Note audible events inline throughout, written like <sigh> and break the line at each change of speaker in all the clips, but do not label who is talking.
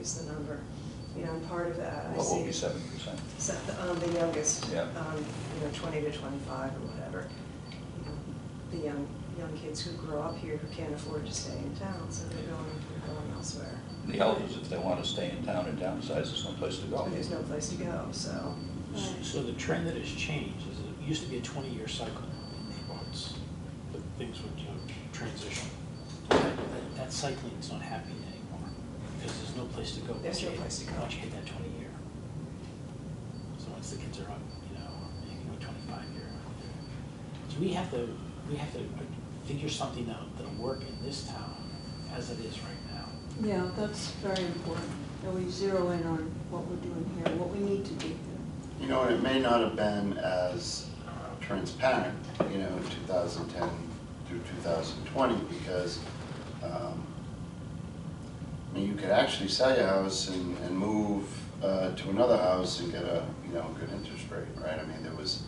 is the number. You know, and part of that, I see.
What will be seven percent?
So, um, the youngest,
Yeah.
um, you know, twenty to twenty-five or whatever. you know, The young, young kids who grow up here who can't afford to stay in town, so they're going, they're going elsewhere.
The elders, if they want to stay in town and downsize, there's no place to
So
go.
There's no place to go, so.
S- So the trend that has changed is it used to be a twenty-year cycle in neighborhoods, but things would, you know, transition. That- That cycling's not happening anymore, because there's no place to go.
There's
once
no
you hit-
place to go.
Once you hit that twenty-year. So once the kids are up, you know, or maybe you know, twenty-five year. So we have to, we have to figure something out that'll work in this town as it is right now.
Yeah, that's very important, that we zero in on what we're doing here, what we need to do here.
You know, it may not have been as uh, transparent, you know, 2010 through 2020, because, um, I mean, you could actually sell your house and, and move uh, to another house and get a, you know, good interest rate, right? I mean, there was,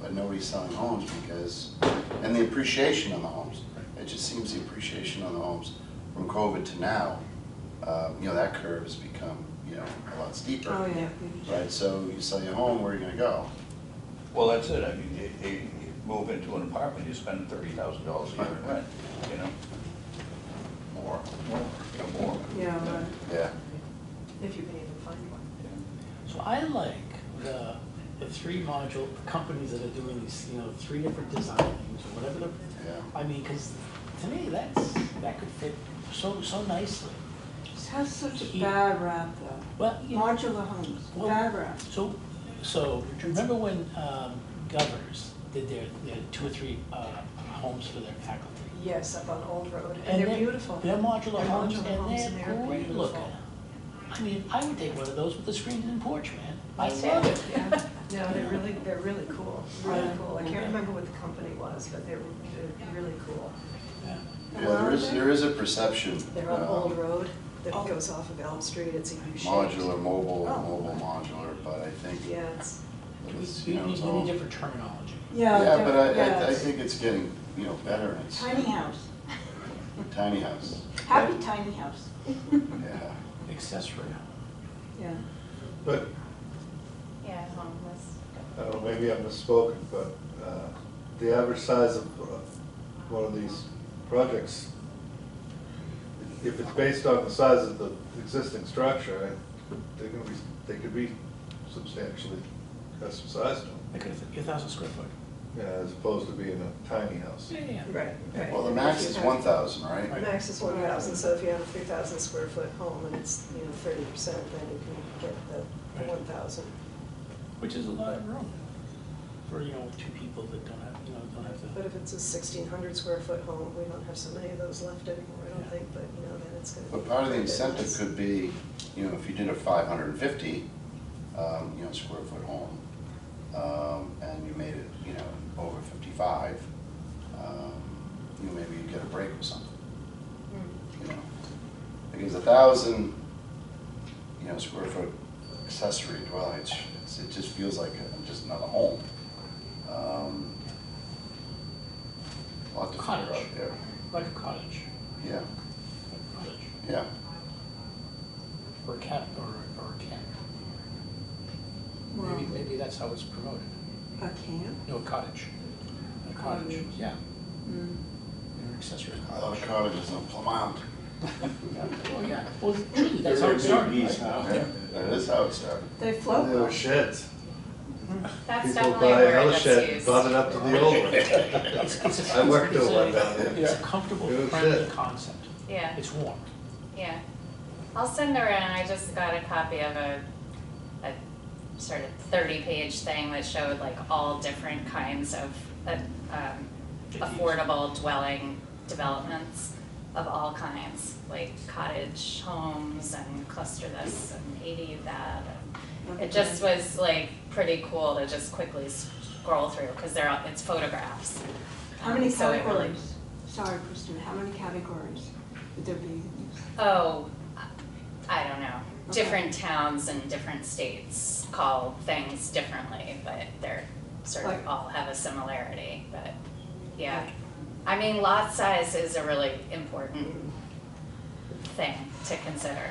but nobody's selling homes because, and the appreciation on the homes. It just seems the appreciation on the homes from COVID to now, uh, you know, that curve has become, you know, a lot steeper.
Oh, yeah.
Right, so you sell your home, where are you gonna go?
Well, that's it, I mean, you, you you move into an apartment, you spend thirty thousand dollars a year in rent, you know? More, more, you know, more.
Yeah, right.
Yeah.
If you can even find one.
So I like the, the three module companies that are doing these, you know, three different design things or whatever the,
Yeah.
I mean, because to me, that's, that could fit so, so nicely.
This has such a bad rap, though.
Well, you know,
Modular homes,
Well-
bad rap.
so, so remember when um, Govers did their, their two or three uh, homes for their faculty?
Yes, up on Old Road, and they're
they-
beautiful.
They're modular
They're
homes
modular homes and
and they're
they're
great looking.
beautiful.
I mean, I would take one of those with a screened in porch, man. I
Yeah,
love it.
yeah. No, they're really, they're really cool, really
Right.
cool. I can't remember what the company was, but they're, they're really cool.
Yeah.
Yeah, there is, there is a perception.
They're on
um,
Old Road that
Oh.
goes off of Elm Street, it's a U-shaped.
Modular, mobile,
Oh.
mobile modular, but I think
Yeah, it's,
it's,
We,
you
we,
know,
we
it's
need
all.
different terminology.
Yeah.
Yeah, but I,
yeah,
I, I
it's
think it's getting, you know, better, and it's
Tiny
<laughs>
house,
tiny house,
happy tiny house,
yeah.
accessory home.
yeah.
But,
Yeah, homeless.
I don't know, maybe I've misspoken, but uh, the average size of uh, one of these projects, if it's based on the size of the existing structure, I- they're gonna be, they could be substantially custom sized,
Like a, a thousand square foot.
yeah, as opposed to being a tiny house.
Yeah, yeah.
right, right.
Well, the max is one thousand,
The
right?
max is one thousand, so if you have a three thousand square foot home and it's, you know, thirty percent, then you can get the
Right.
one thousand.
Which is a lot of room for, you know, two people that don't have, you know, don't have
But
to.
if it's a sixteen hundred square foot home, we don't have so many of those left anymore, I don't
Yeah.
think, but, you know, then it's gonna.
But part of the
be quite a bit
incentive
less.
could be, you know, if you did a five hundred and fifty, um, you know, square foot home, um, and you made it, you know, over fifty-five, um, you know, maybe you'd get a break or something.
Hmm.
Mm.
you know, because a thousand, you know, square foot accessory dwelling, it's, it's, it just feels like a- just another home. Um, Lot to figure out
Cottage.
there,
Like a cottage,
yeah,
like a cottage,
yeah,
or a camp, or, or a camp.
Well,
Maybe, maybe that's how it's promoted.
A camp?
No, a cottage. A cottage,
Cottage.
yeah,
Mm.
an accessory
I love
cottage.
cottages in Plymouth.
Oh, yeah. Well, truly, that's how it started, right?
Yeah, That is how it started.
<laughs> They float
There were
though.
sheds.
Oh, That's
People
definitely a
buy
word
another
that's
shed,
used.
bought it up to the old one.
It's, it's a.
I worked
it's
at one
a-
down there.
It's a comfortable,
It was
friendly
it.
concept.
Yeah,
It's warm.
yeah. I'll send around, I just got a copy of a, a sort of thirty-page thing that showed like all different kinds of, uh, um, affordable dwelling developments of all kinds, like cottage homes and cluster this and eighty that. and It just was like pretty cool to just quickly scroll through, cause they're, all it's photographs.
How many
Um, so it really-
categories? Sorry, Kristen, how many categories would there be?
Oh, I don't know.
Okay.
Different towns and different states call things differently, but they're sort
Like-
of all have a similarity, but yeah. I mean, lot size is a really important thing to consider.